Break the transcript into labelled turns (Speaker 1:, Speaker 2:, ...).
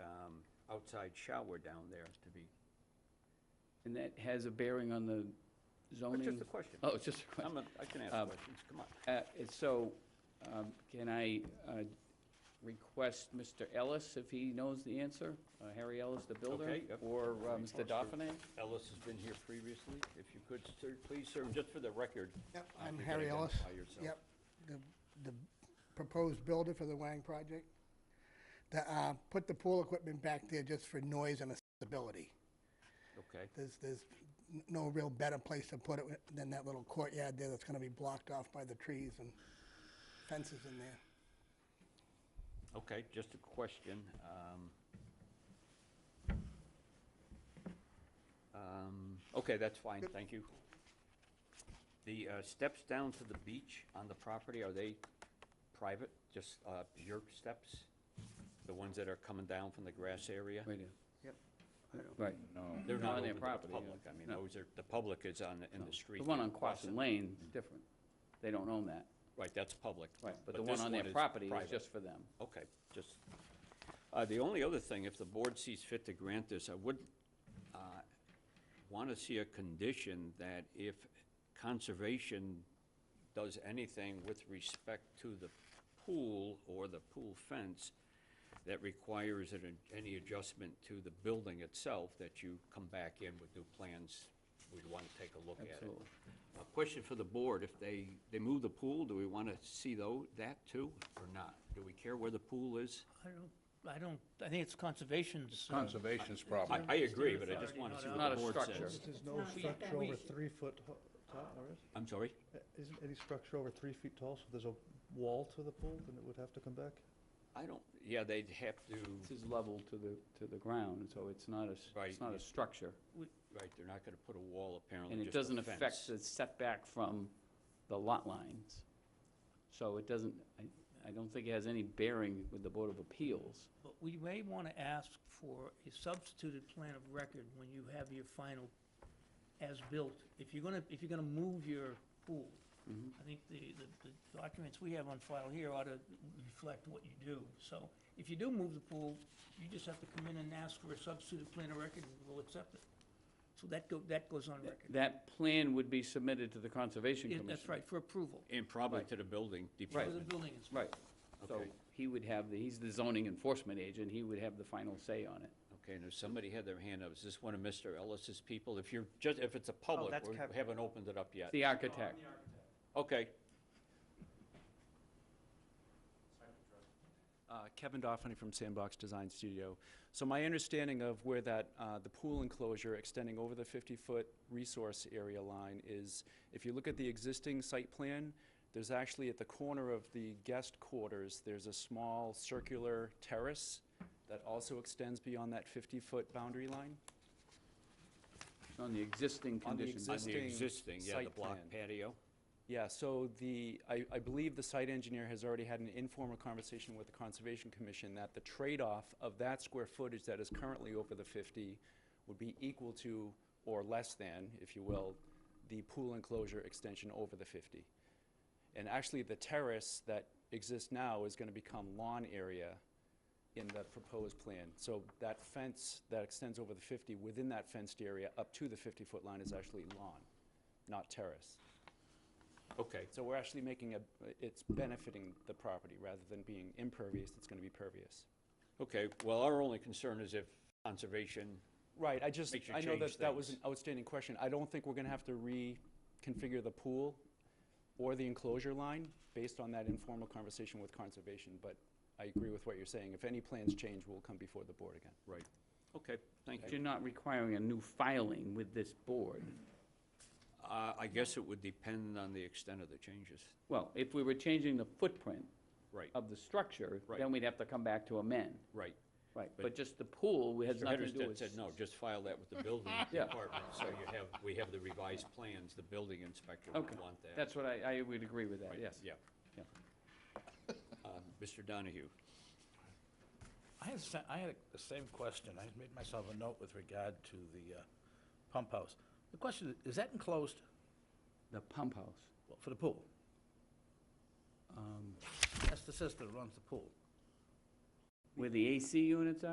Speaker 1: um, outside shower down there to be,
Speaker 2: And that has a bearing on the
Speaker 1: it's
Speaker 2: zoning?
Speaker 1: just a question.
Speaker 2: Oh, it's just a question.
Speaker 1: I'm a, I can ask
Speaker 2: Um,
Speaker 1: questions, come on.
Speaker 2: Uh, and So, um, can I uh, request Mr. Ellis, if he knows the answer, uh, Harry Ellis, the builder?
Speaker 1: Okay, yep.
Speaker 2: Or uh,
Speaker 1: Very
Speaker 2: Mr.
Speaker 1: close to-
Speaker 2: Dauphiné?
Speaker 1: Ellis has been here previously, if you could, sir, please, sir, just for the record.
Speaker 3: Yep,
Speaker 1: uh,
Speaker 3: I'm
Speaker 1: if you could
Speaker 3: Harry Ellis.
Speaker 1: identify yourself.
Speaker 3: Yep, the, the proposed builder for the Wang project. The, uh, put the pool equipment back there just for noise and accessibility.
Speaker 1: Okay,
Speaker 3: There's, there's n- no real better place to put it than that little courtyard there that's gonna be blocked off by the trees and fences in there.
Speaker 1: okay, just a question. um, um, Okay, that's fine, thank you. The uh, steps down to the beach on the property, are they private, just uh, your steps? The ones that are coming down from the grass area?
Speaker 2: Right, here.
Speaker 4: I
Speaker 2: right.
Speaker 1: They're not
Speaker 2: on their
Speaker 1: open to the
Speaker 2: property, yeah.
Speaker 1: public. I mean,
Speaker 2: No.
Speaker 1: those are, the public is on, the- in the street.
Speaker 2: The one
Speaker 1: there
Speaker 2: on
Speaker 1: across
Speaker 2: Quasin
Speaker 1: it.
Speaker 2: Lane is different. They don't own that.
Speaker 1: Right, that's public.
Speaker 2: Right, but the one
Speaker 1: this
Speaker 2: on their
Speaker 1: is
Speaker 2: property is
Speaker 1: private.
Speaker 2: just for them.
Speaker 1: Okay, just, uh, the only other thing, if the board sees fit to grant this, I would want to see a condition that if conservation does anything with respect to the pool or the pool fence that requires an- any adjustment to the building itself, that you come back in with new plans, we'd want to take a look at it.
Speaker 2: Absolutely.
Speaker 1: A question for the board, if they, they move the pool, do we want to see though, that too, or not? Do we care where the pool is?
Speaker 4: don't, I don't, I think it's conservation's. uh,
Speaker 5: Conservation's problem.
Speaker 1: Oh, I, I agree, but I just want to see what
Speaker 2: Not
Speaker 1: the
Speaker 2: a
Speaker 1: board
Speaker 2: structure.
Speaker 1: says.
Speaker 6: There's no structure over three foot ho- tall, or is?
Speaker 1: I'm sorry?
Speaker 6: Isn't any structure over three feet tall, so there's a wall to the pool, then it would have to come back?
Speaker 1: I don't, yeah, they'd have to,
Speaker 2: This is level to the, to the ground, so it's not a, s-
Speaker 1: Right.
Speaker 2: it's not a structure.
Speaker 1: right, they're not going to put a wall apparently,
Speaker 2: And it
Speaker 1: just a
Speaker 2: doesn't affect
Speaker 1: fence.
Speaker 2: the setback from the lot lines. So it doesn't, I, I don't think it has any bearing with the Board of Appeals.
Speaker 4: But we may want to ask for a substituted plan of record when you have your final as-built. If you're gonna, if you're gonna move your pool, I think the, the- the documents we have on file here ought to reflect what you do. So if you do move the pool, you just have to come in and ask for a substituted plan of record, and we'll accept it. So that go, that goes on record.
Speaker 2: That plan would be submitted to the Conservation
Speaker 4: Yeah,
Speaker 2: Commission.
Speaker 4: That's right, for approval,
Speaker 1: And probably to the building
Speaker 4: for the
Speaker 1: department.
Speaker 4: building inspector.
Speaker 2: Right. So
Speaker 1: Okay.
Speaker 2: he would have, the he's the zoning enforcement agent, he would have the final say on it.
Speaker 1: Okay, and if somebody had their hand up, is this one of Mr. Ellis's people? If you're, just, if it's a
Speaker 2: Oh,
Speaker 1: public,
Speaker 6: that's
Speaker 1: we
Speaker 6: Kevin.
Speaker 1: haven't opened it up yet.
Speaker 2: The architect.
Speaker 1: Okay,
Speaker 7: Uh, Kevin Doffany from Sandbox Design Studio. So my understanding of where that, uh, the pool enclosure extending over the 50-foot resource area line is, if you look at the existing site plan, there's actually at the corner of the guest quarters, there's a small circular terrace that also extends beyond that 50-foot boundary line.
Speaker 2: On the existing
Speaker 7: On the
Speaker 2: conditions.
Speaker 1: on the existing, yeah, the
Speaker 7: site
Speaker 1: block
Speaker 7: plan.
Speaker 1: patio.
Speaker 7: Yeah, so the, I, I believe the site engineer has already had an informal conversation with the Conservation Commission that the trade-off of that square footage that is currently over the fifty would be equal to, or less than, if you will, the pool enclosure extension over the fifty. And actually, the terrace that exists now is gonna become lawn area in the proposed plan. So that fence that extends over the fifty, within that fenced area, up to the fifty-foot line is actually lawn, not terrace.
Speaker 1: Okay,
Speaker 7: So we're actually making a, it's benefiting the property rather than being impervious, it's gonna be pervious.
Speaker 1: okay, well, our only concern is if conservation,
Speaker 7: Right, I just,
Speaker 1: Makes you
Speaker 7: I know
Speaker 1: change
Speaker 7: that that was an
Speaker 1: things.
Speaker 7: outstanding question. I don't think we're gonna have to reconfigure the pool or the enclosure line based on that informal conversation with conservation, but I agree with what you're saying. If any plans change, we'll come before the board again.
Speaker 1: right, okay, thank
Speaker 2: But
Speaker 1: you.
Speaker 2: You're not requiring a new filing with this board.
Speaker 1: Uh, I guess it would depend on the extent of the changes,
Speaker 2: Well, if we were changing the footprint
Speaker 1: right,
Speaker 2: of the structure,
Speaker 1: Right.
Speaker 2: then we'd have to come back to amend.
Speaker 1: right.
Speaker 2: Right,
Speaker 1: But-
Speaker 2: but just the pool has
Speaker 1: Mr.
Speaker 2: nothing to do
Speaker 1: Hedersted
Speaker 2: with.
Speaker 1: said, no, just file that with the building
Speaker 2: Yeah.
Speaker 1: department, so you have, we have the revised plans, the building inspector
Speaker 2: Okay,
Speaker 1: would want that.
Speaker 2: that's what I, I would agree with that,
Speaker 1: Right,
Speaker 2: yes.
Speaker 1: Yeah.
Speaker 2: Yeah.
Speaker 1: Uh, Mr. Donahue,
Speaker 5: I had, sa- I had the same question. I made myself a note with regard to the uh, pump house. The question, is that enclosed
Speaker 2: The pump house.
Speaker 5: Well, for the pool?
Speaker 2: um,
Speaker 5: That's the system that runs the pool.
Speaker 2: Where the AC units are?